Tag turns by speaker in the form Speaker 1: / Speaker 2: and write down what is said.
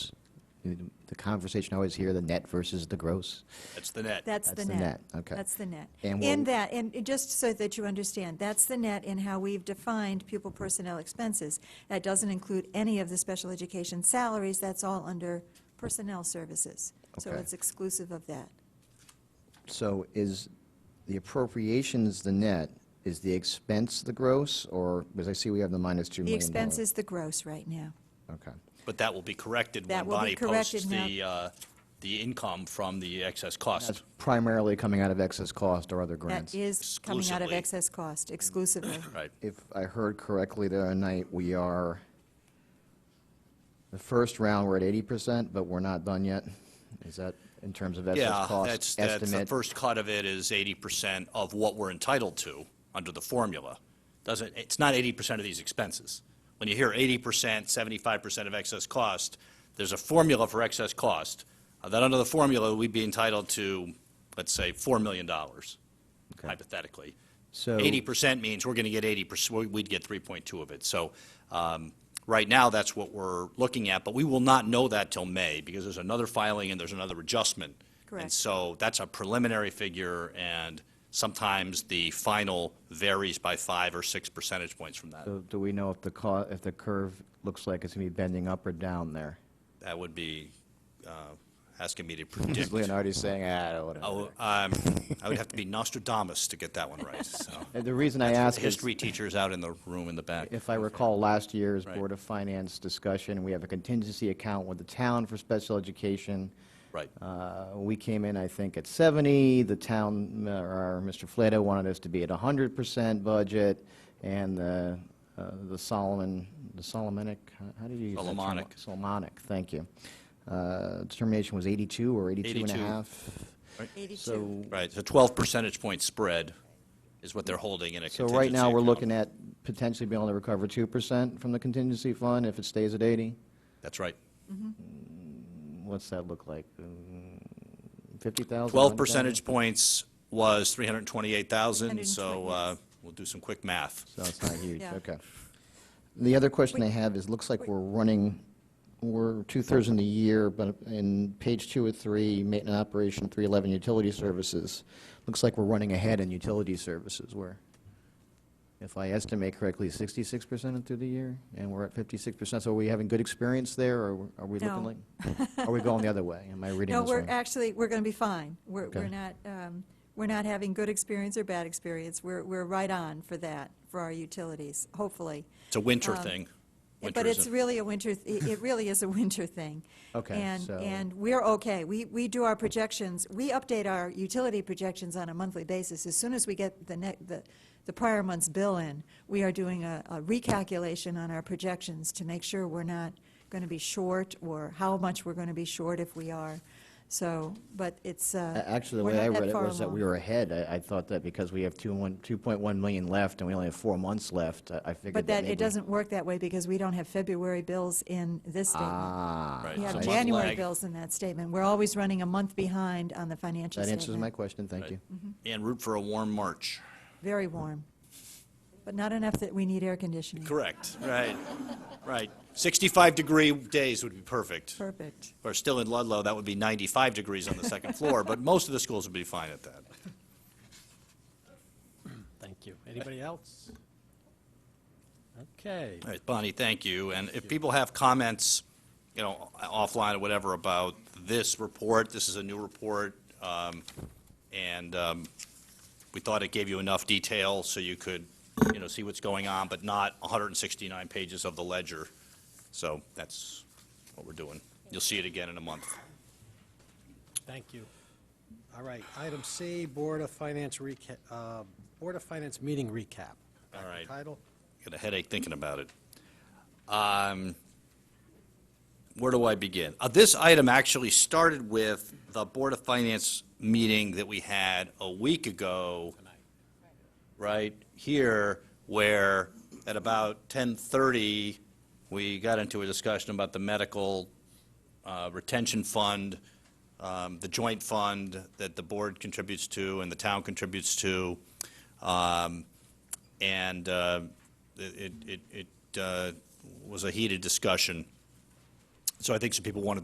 Speaker 1: the conversation I always hear, the net versus the gross.
Speaker 2: That's the net.
Speaker 3: That's the
Speaker 1: That's the
Speaker 3: net.
Speaker 1: net, okay.
Speaker 3: That's the net.
Speaker 1: And
Speaker 3: In
Speaker 1: we'll-
Speaker 3: that, and it- just so that you understand, that's the net in how we've defined pupil personnel expenses. That doesn't include any of the special education salaries, that's all under personnel services. So
Speaker 1: Okay.
Speaker 3: it's exclusive of that.
Speaker 1: So is the appropriations the net, is the expense the gross, or, because I see we have the minus $2
Speaker 3: The
Speaker 1: million.
Speaker 3: expense is the gross right now.
Speaker 1: Okay.
Speaker 2: But that will be corrected
Speaker 3: That
Speaker 2: when
Speaker 3: will be
Speaker 2: Bonnie posts
Speaker 3: corrected now.
Speaker 2: the, uh, the income from the excess cost.
Speaker 1: That's primarily coming out of excess cost or other grants.
Speaker 3: That is coming out of
Speaker 2: Exclusively.
Speaker 3: excess cost exclusively.
Speaker 2: Right.
Speaker 1: If I heard correctly the other night, we are, the first round, we're at 80%, but we're not done yet? Is that in terms of
Speaker 2: Yeah,
Speaker 1: excess
Speaker 2: that's,
Speaker 1: cost
Speaker 2: that's, the
Speaker 1: estimate?
Speaker 2: first cut of it is 80% of what we're entitled to under the formula. Doesn't, it's not 80% of these expenses. When you hear 80%, 75% of excess cost, there's a formula for excess cost. Uh, That under the formula, we'd be entitled to, let's say, $4 million hypothetically.
Speaker 1: So-
Speaker 2: 80% means we're going to get 80%, we- we'd get 3.2 of it. So um, right now, that's what we're looking at, but we will not know that till May, because there's another filing and there's another adjustment. And
Speaker 3: Correct.
Speaker 2: so that's a preliminary figure, and sometimes the final varies by five or six percentage points from that.
Speaker 1: So Do we know if the co, if the curve looks like it's going to be bending up or down there?
Speaker 2: That would be uh, asking me to predict.
Speaker 1: Leonardo's saying, ah,
Speaker 2: Oh,
Speaker 1: whatever.
Speaker 2: um, I would have to be Nostradamus to get that one right, so.
Speaker 1: The reason I ask is,
Speaker 2: History teachers out in the room in the back.
Speaker 1: if I recall last year's
Speaker 2: Right.
Speaker 1: Board of Finance discussion, we have a contingency account with the town for special education.
Speaker 2: Right.
Speaker 1: Uh, We came in, I think, at 70, the town, uh, or Mr. Flato wanted us to be at 100% budget, and the uh, the Solomon, the Solomonic, how- how do you use that term?
Speaker 2: Solomonic.
Speaker 1: Solomonic, thank you. Uh, Determination was 82 or 82 and a
Speaker 2: 82.
Speaker 1: half?
Speaker 3: Eighty-two.
Speaker 1: So,
Speaker 2: Right, so 12 percentage point spread is what they're holding in a
Speaker 1: so
Speaker 2: contingency
Speaker 1: right now, we're
Speaker 2: account.
Speaker 1: looking at potentially being able to recover 2% from the contingency fund if it stays at 80?
Speaker 2: That's right.
Speaker 1: What's that look like? Mm, 50,000?
Speaker 2: 12 percentage points was 328,000,
Speaker 3: 120,
Speaker 2: so
Speaker 3: yes.
Speaker 2: uh, we'll do some quick math.
Speaker 1: So it's not huge,
Speaker 3: Yeah.
Speaker 1: okay. The other question I have is, looks like we're running, we're two-thirds in the year, but in page two or three, maintenance operation, 311, utility services, looks like we're running ahead in utility services, where, if I estimate correctly, 66% through the year, and we're at 56%, so are we having good experience there, or are we looking
Speaker 3: No.
Speaker 1: like? Are we going the other way? Am I reading
Speaker 3: No,
Speaker 1: this
Speaker 3: we're,
Speaker 1: wrong?
Speaker 3: actually, we're going to be fine. We're,
Speaker 1: Okay.
Speaker 3: we're not, um, we're not having good experience or bad experience. We're, we're right on for that, for our utilities, hopefully.
Speaker 2: It's a winter thing. Winter
Speaker 3: Um, But
Speaker 2: is
Speaker 3: it's
Speaker 2: a-
Speaker 3: really a winter, th- it it really is a winter thing.
Speaker 1: Okay,
Speaker 3: And,
Speaker 1: so-
Speaker 3: and we're okay. We, we do our projections, we update our utility projections on a monthly basis. As soon as we get the ne the, the prior month's bill in, we are doing a, a recalculation on our projections to make sure we're not going to be short or how much we're going to be short if we are. So, but it's, uh.
Speaker 1: A- Actually, the
Speaker 3: we're
Speaker 1: way
Speaker 3: not
Speaker 1: I
Speaker 3: that
Speaker 1: read it
Speaker 3: far
Speaker 1: was that we
Speaker 3: along.
Speaker 1: were ahead. I, I thought that because we have two one, 2.1 million left and we only have four months left, I- I figured
Speaker 3: But
Speaker 1: that
Speaker 3: that,
Speaker 1: maybe.
Speaker 3: it doesn't work that way because we don't have February bills in this statement.
Speaker 1: Ah,
Speaker 2: Right. It's
Speaker 3: We
Speaker 2: a
Speaker 3: have
Speaker 2: month
Speaker 3: January
Speaker 2: lag.
Speaker 3: bills in that statement. We're always running a month behind on the financial
Speaker 1: that
Speaker 3: statement.
Speaker 1: answers my question, thank you.
Speaker 2: And root for a warm March.
Speaker 3: Very warm, but not enough that we need air conditioning.
Speaker 2: Correct, right, right. 65-degree days would be perfect.
Speaker 3: Perfect.
Speaker 2: Or still in Ludlow, that would be 95 degrees on the second floor, but most of the schools would be fine at that.
Speaker 4: Thank you. Anybody else? Okay.
Speaker 2: All right, Bonnie, thank you. And if people have comments, you know, offline or whatever about this report, this is a new report, um, and um, we thought it gave you enough detail so you could, you know, see what's going on, but not 169 pages of the ledger. So that's what we're doing. You'll see it again in a month.
Speaker 4: Thank you. All right, item C, Board of Finance recap, uh, Board of Finance meeting recap. Back
Speaker 2: All
Speaker 4: to
Speaker 2: right.
Speaker 4: Title,
Speaker 2: Got a headache thinking about it. Um, Where do I begin? Uh, This item actually started with the Board of Finance meeting that we had a week ago, right here, where at about 10:30, we got into a discussion about the medical uh, retention fund, um, the joint fund that the board contributes to and the town contributes to. Um, and uh, it, it, it uh, was a heated discussion. So I think some people wanted